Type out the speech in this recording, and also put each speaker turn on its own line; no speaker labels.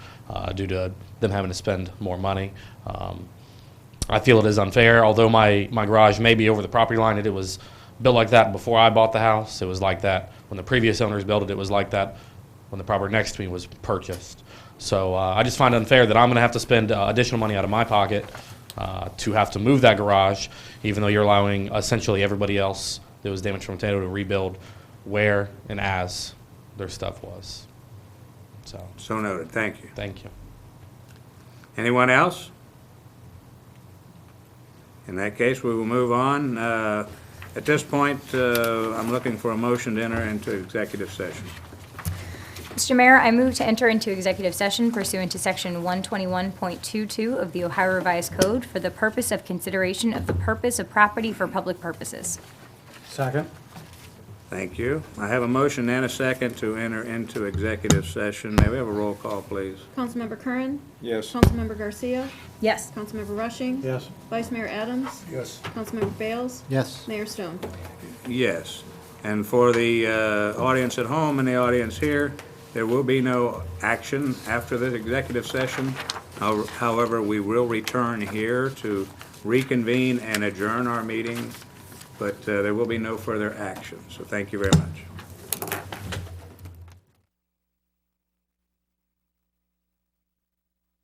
uh, due to them having to spend more money. Um, I feel it is unfair, although my, my garage may be over the property line, it, it was built like that before I bought the house. It was like that when the previous owners built it, it was like that when the property next to me was purchased. So uh, I just find it unfair that I'm going to have to spend uh, additional money out of my pocket uh, to have to move that garage, even though you're allowing essentially everybody else that was damaged from a tornado to rebuild where and as their stuff was. So,
So noted, thank you.
thank you.
Anyone else? In that case, we will move on. Uh, At this point, uh, I'm looking for a motion to enter into executive session.
Mr. Mayor, I move to enter into executive session pursuant to Section 121.22 of the Ohio Revised Code for the purpose of consideration of the purpose of property for public purposes.
Second.
Thank you. I have a motion and a second to enter into executive session. May we have a roll call, please?
Councilmember Curran?
Yes.
Councilmember Garcia?
Yes.
Councilmember Rushing?
Yes.
Vice Mayor Adams?
Yes.
Councilmember Bales?
Yes.
Mayor Stone?
Yes. And for the uh, audience at home and the audience here, there will be no action after this executive session. How- However, we will return here to reconvene and adjourn our meeting, but uh, there will be no further action. So thank you very much.